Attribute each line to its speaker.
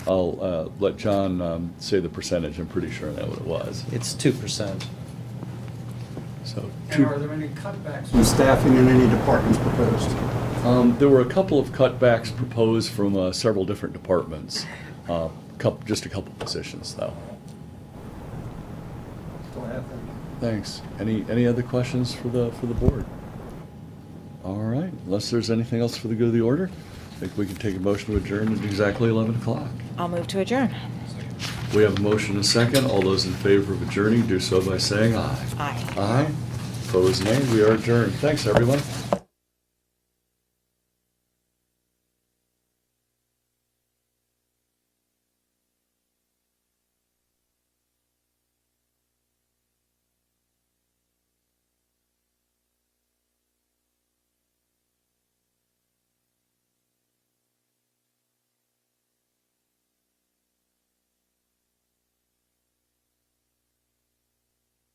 Speaker 1: I'll uh, let John um, say the percentage. I'm pretty sure I know what it was.
Speaker 2: It's two percent.
Speaker 1: So
Speaker 3: And
Speaker 1: two-
Speaker 3: are there any cutbacks in staffing in any departments proposed?
Speaker 1: Um, There were a couple of cutbacks proposed from uh, several different departments, Uh, coup- just a couple positions, though.
Speaker 3: Go ahead then.
Speaker 1: Thanks. Any, any other questions for the, for the board? All right, unless there's anything else for the good of the order, I think we can take a motion to adjourn at exactly 11 o'clock.
Speaker 4: I'll move to adjourn.
Speaker 1: We have a motion and a second. All those in favor of adjourning, do so by saying aye.
Speaker 4: Aye.
Speaker 1: Aye. Opposed, nay. We are adjourned. Thanks, everyone.